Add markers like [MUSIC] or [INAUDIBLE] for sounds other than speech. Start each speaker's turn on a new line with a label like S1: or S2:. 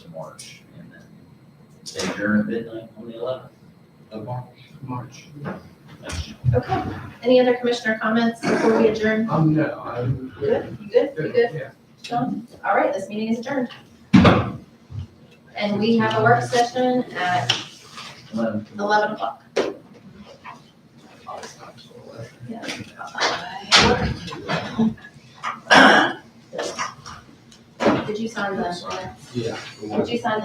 S1: March, and then they adjourn at midnight on the eleventh of March.
S2: March.
S3: Okay, any other commissioner comments before we adjourn?
S2: Um, no, I'm.
S3: Good, you good, you good,
S2: Yeah.
S3: Sean? All right, this meeting is adjourned. And we have a work session at
S1: Eleven.
S3: eleven o'clock. [COUGHS]
S1: Always not till eleven.
S3: Did you sign the,
S2: Yeah.
S3: did you sign